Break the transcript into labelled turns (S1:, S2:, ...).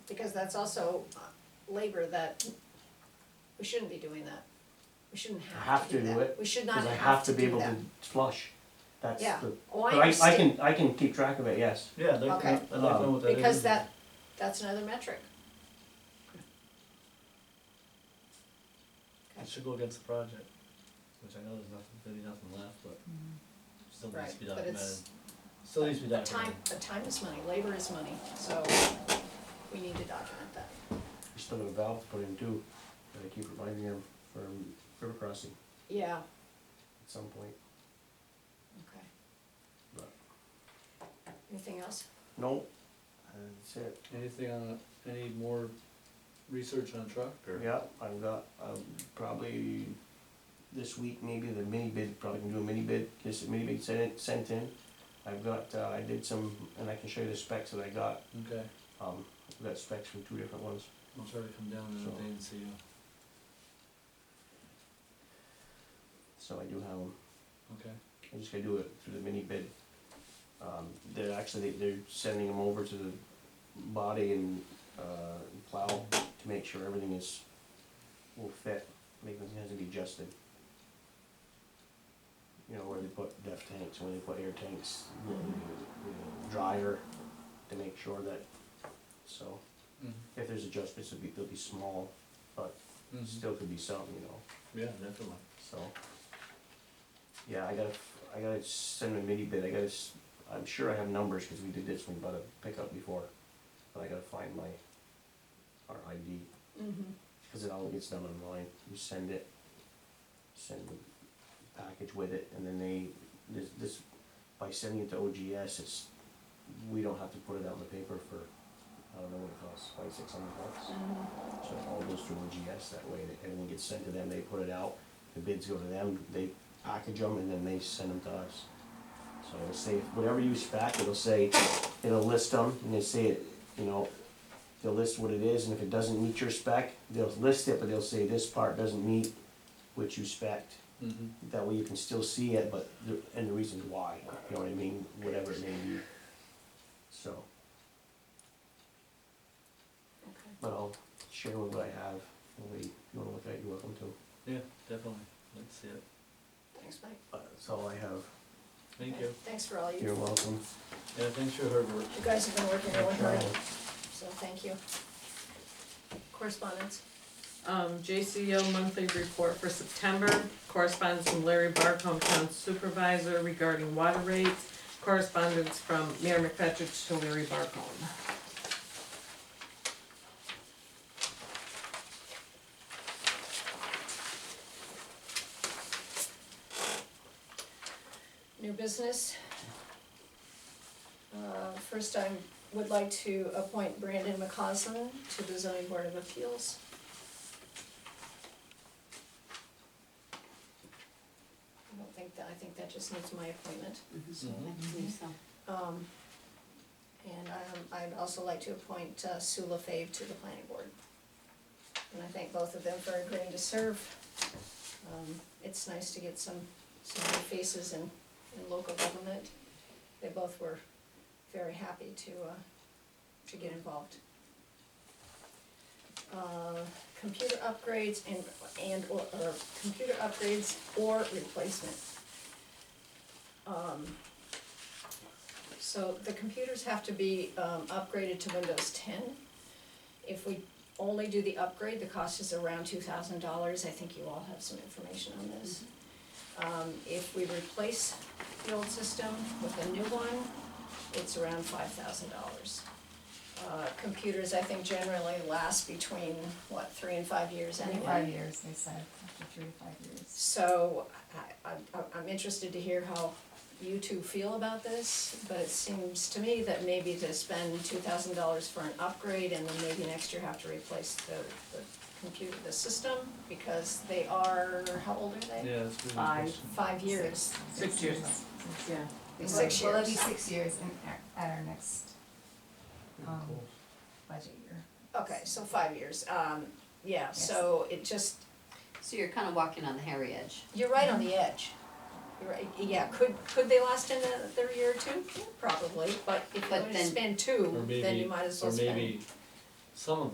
S1: because that's also uh, labor that, we shouldn't be doing that. We shouldn't
S2: I
S1: have to do that.
S2: it,
S1: We should not
S2: Cause I have to be
S1: do
S2: able
S1: that.
S2: to flush, that's
S1: Yeah.
S2: the,
S1: Oh,
S2: but
S1: I
S2: I, I
S1: understand,
S2: can, I can keep track of it, yes.
S3: Yeah, they
S1: Okay.
S3: I'd like to know what that is.
S1: because that, that's another metric.
S3: It should go against the project, which I know there's nothing, there'll be nothing left, but still needs to be
S1: Mm-hmm. Right, but
S3: documented.
S1: it's-
S3: Still needs to be
S1: But time,
S3: documented.
S1: but time is money, labor is money, so we need to document that.
S2: We still have a valve to put in too, that I keep reminding them from river crossing
S1: Yeah,
S2: at some point,
S1: okay.
S2: but,
S1: Anything else?
S2: no, that's it.
S3: Anything on, any more research on truck or?
S2: Yeah, I've got, um, probably this week, maybe the mini bid, probably can do a mini bid, get some mini bid sent, sent in. I've got, uh, I did some, and I can show you the specs that I got,
S3: Okay,
S2: um, I've got specs from two different ones.
S3: I'll try to come down
S2: So-
S3: another day and see you.
S2: So I do have them.
S3: Okay.
S2: I'm just gonna do it through the mini bid. Um, they're actually, they're sending them over to the body and, uh, plow to make sure everything is, will fit, make them, has to be adjusted. You know, where they put depth tanks, where they put air tanks, where they, you know, dryer, to make sure that, so,
S3: Mm-hmm.
S2: if there's adjustments, it'll be, they'll be small, but still could be some, you know.
S3: Yeah, definitely.
S2: So, yeah, I gotta, I gotta send a mini bid, I gotta, s- I'm sure I have numbers, cause we did this one about a pickup before, but I gotta find my, our ID,
S1: Mm-hmm.
S2: cause it all gets done online, you send it, send the package with it, and then they, this, this, by sending it to OGS, it's, we don't have to put it out in the paper for, I don't know what it costs, like six hundred bucks?
S1: Mm-hmm.
S2: So it all goes through OGS that way, that everyone gets sent to them, they put it out, the bids go to them, they package them, and then they send them to us. So it'll say, whatever you spec, it'll say, it'll list them, and they say, it, you know, they'll list what it is, and if it doesn't meet your spec, they'll list it, but they'll say this part doesn't meet what you spec.
S3: Mm-hmm.
S2: That way you can still see it, but, the- and the reasons why, you know what I mean, whatever it may be. So,
S1: Okay.
S2: but I'll share what I have, and we, if you wanna look at it, you're welcome to.
S3: Yeah, definitely. Let's see it.
S1: Thanks, Mike.
S2: But That's all I have.
S3: Thank you.
S1: Thanks for all you,
S2: You're
S1: you
S2: welcome.
S3: Yeah, thanks for your hard work.
S1: guys have been working really hard,
S2: Thank you.
S1: so thank you. Correspondence?
S4: Um, JCO monthly report for September, correspondence from Larry Barcombe, town supervisor regarding water rates, correspondence from Mayor McFetrich to Larry Barcombe.
S1: New business. Uh, First, I would like to appoint Brandon McCausland to the zoning board of appeals. I don't think that, I think that just needs my appointment.
S3: Mhm.
S1: Um, And um, I'd also like to appoint uh, Sue LaFave to the planning board. And I thank both of them for agreeing to serve. Um, It's nice to get some, some new faces in, in local government. They both were very happy to, uh, to get involved. Uh, Computer upgrades and, and, or, or computer upgrades or replacement. Um, so the computers have to be um, upgraded to Windows ten. If we only do the upgrade, the cost is around two thousand dollars, I think you all have some information on this.
S5: Mm-hmm.
S1: Um, if we replace the old system with a new one, it's around five thousand dollars. Uh, computers, I think generally last between, what, three and five years
S5: Three
S1: anyway?
S5: to five years, they said, after three to five years.
S1: So I, I'm, I'm interested to hear how you two feel about this, but it seems to me that maybe to spend two thousand dollars for an upgrade and then maybe next year have to replace the, the computer, the system, because they are, how old are they?
S3: Yeah, that's a good
S4: Five.
S3: question.
S1: Five years,
S4: Six years. Yeah.
S1: Six
S5: Well, Well, it'll be
S1: years.
S5: six years in, our- at our next Um, budget year.
S1: okay, so five years, um, yeah, so it just,
S6: So you're kind of walking on the hairy edge.
S1: You're right on the edge. You're right, yeah, could, could they last another year or two? Probably, but if
S6: But
S1: you're gonna
S6: then-
S1: spend
S3: Or
S1: two, then
S3: maybe,
S1: you might as
S3: or
S1: well spend.
S3: maybe some of